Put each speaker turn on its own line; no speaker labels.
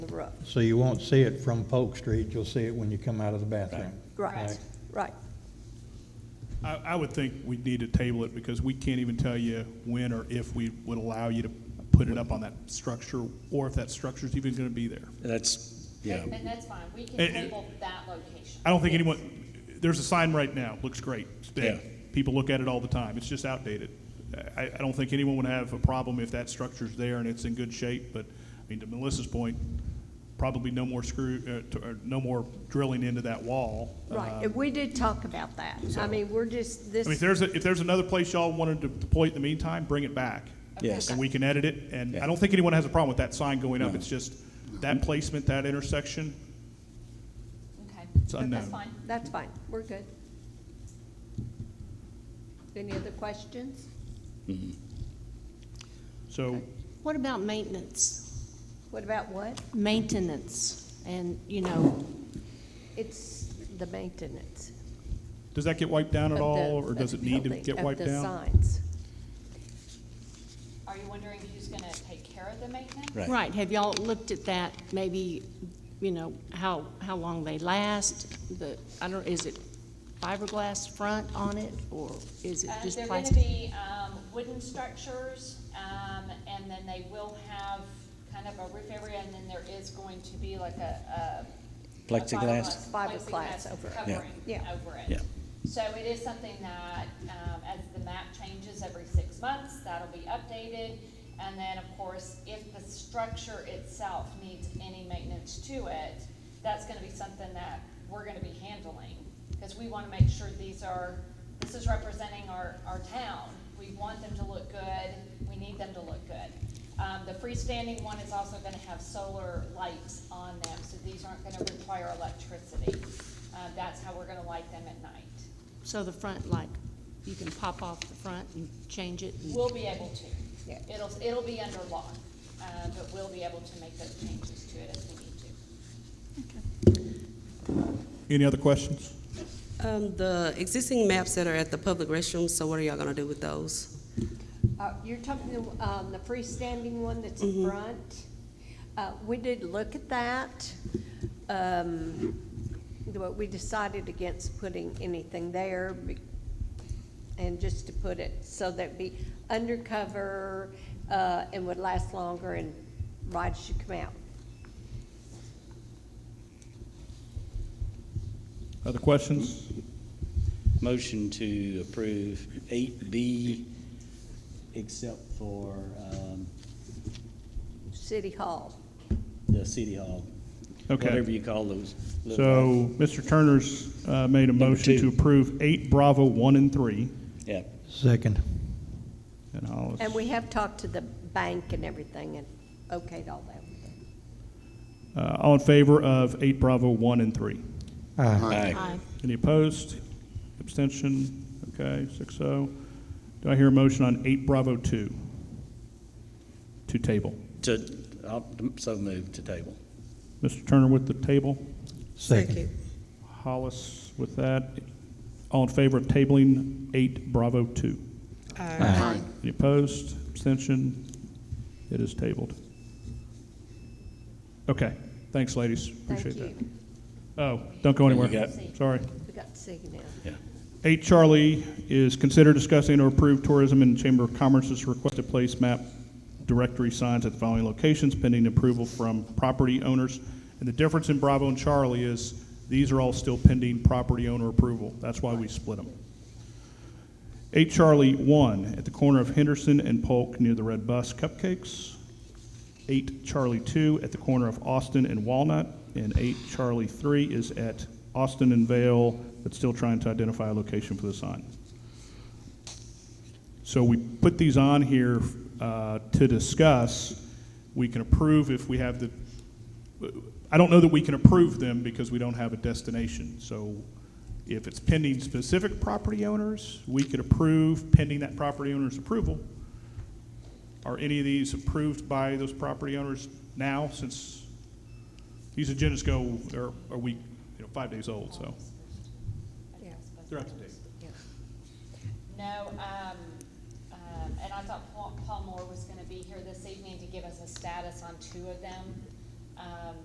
roof.
So you won't see it from Polk Street, you'll see it when you come out of the bathroom.
Right, right.
I, I would think we need to table it because we can't even tell you when or if we would allow you to put it up on that structure or if that structure's even gonna be there.
That's, yeah,
And that's fine, we can
Eh, eh.
table that location.
I don't think anyone, there's a sign right now, looks great, it's big.
Yeah.
People look at it all the time, it's just outdated. I, I don't think anyone would have a problem if that structure's there and it's in good shape, but, I mean, to Melissa's point, probably no more screw, uh, to- or no more drilling into that wall.
Right, and we did talk about that. I mean, we're just, this.
Um, I mean, if there's, a- if there's another place y'all wanted to deploy it in the meantime, bring it back.
Yes.
And we can edit it, and I
Yeah.
don't think anyone has a problem with that sign going up,
No.
it's just that placement, that intersection,
Okay,
it's unknown.
that's fine.
That's fine, we're good. Any other questions?
So,
What about maintenance?
What about what?
Maintenance and, you know,
It's the maintenance
does that get wiped down
of
at
the.
all, or
of
does
the
it need to
building,
get
of
wiped
the
down?
signs.
Are you wondering who's gonna take care of the maintenance?
right.
right, have y'all looked at that, maybe, you know, how, how long they last? The, I don't, is it fiberglass front on it, or is it
Uh,
just
They're gonna
plastic?
be, um, wooden structures, um, and then they will have kind of a roof area, and then there is going to be like a, a. a
Plexiglass.
Fiberglass
plexiglass
over it.
Yeah.
Covering
Yeah.
over it.
Yeah.
So it is something that, um, as the map changes every six months, that'll be updated. And then, of course, if the structure itself needs any maintenance to it, that's gonna be something that we're gonna be handling. Because we wanna make sure these are, this is representing our, our town. We want them to look good, we need them to look good. Um, the freestanding one is also gonna have solar lights on them, so these aren't gonna require electricity. Uh, that's how we're gonna light them at night.
So the front, like, you can pop off the front and change it? and-
We'll be able to.
Yeah.
It'll, it'll be under lock, uh, but we'll be able to make those changes to it as we need to.
any other questions?
Um, the existing maps that are at the public restrooms, so what are y'all gonna do with those?
Uh, You're talking, um, the freestanding one that's in front? Uh, we did look at that, um, but we decided against putting anything there be- and just to put it so that it'd be undercover, uh, and would last longer and rides should come out.
Other questions?
Motion to approve eight B, except for um,
City Hall.
the city hall.
Okay.
Whatever you call those. little-
So, Mr. Turner's, uh, made a motion to
two.
approve eight Bravo one and three,
Yeah,
Second.
and I'll.
And we have talked to the bank and everything and okayed all that with them.
Uh, all in favor of eight Bravo one and three?
Aye.
aye.
Aye.
Any opposed? Abstention? Okay, six oh. Do I hear a motion on eight Bravo two? To table.
To, I'll, so move to table.
Mr. Turner with the table,
Second.
Hollis with that. All in favor of tabling eight Bravo two? Any opposed? Abstention? It is tabled. Okay, thanks, ladies. Appreciate
Thank
that. Oh, don't go anywhere.
got-
Sorry.
We got to see you now.
Yeah.
Eight Charlie is consider discussing or approve tourism and Chamber of Commerce's requested place map directory signs at the following locations pending approval from property owners. And the difference in Bravo and Charlie is these are all still pending property owner approval. That's why we split them. Eight Charlie one at the corner of Henderson and Polk near the Red Bus Cupcakes. Eight Charlie two at the corner of Austin and Walnut. And eight Charlie three is at Austin and Vale, but still trying to identify a location for the sign. So we put these on here uh, to discuss. We can approve if we have the, I don't know that we can approve them because we don't have a destination. So if it's pending specific property owners, we could approve pending that property owner's approval. Are any of these approved by those property owners now since these agendas go, are are we, you know, five days old, so
Yeah.
they're up to date.
No, um, um, and I thought Paul, Paul Moore was gonna be here this evening to give us a status on two of them. Um,